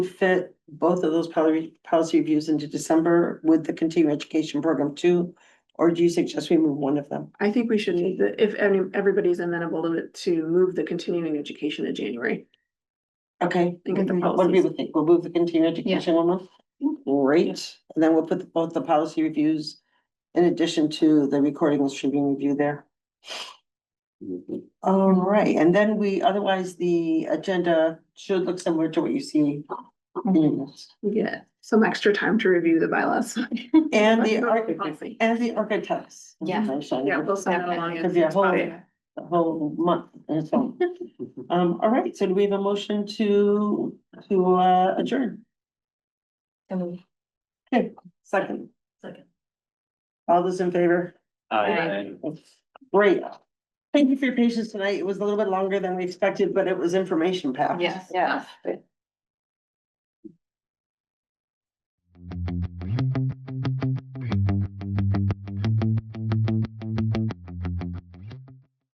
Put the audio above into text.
fit both of those policy, policy reviews into December with the continuing education program too? Or do you suggest we move one of them? I think we should need the, if any, everybody's amenable to it, to move the continuing education to January. Okay. And get the What do people think? We'll move the continuing education one month? Great, and then we'll put the- both the policy reviews in addition to the recording and streaming review there. All right, and then we, otherwise the agenda should look similar to what you see. in this. We get some extra time to review the bylaws. And the, Not arch- policy. and the architects. Yeah. Yeah, Information. we'll send it along. Could be a whole- Yeah. the whole month and so. Um, all right, so do we have a motion to, to uh, adjourn? Second. Second. All those in favor? Great. Thank you for your patience tonight. It was a little bit longer than we expected, but it was information packed. Yes. Yeah.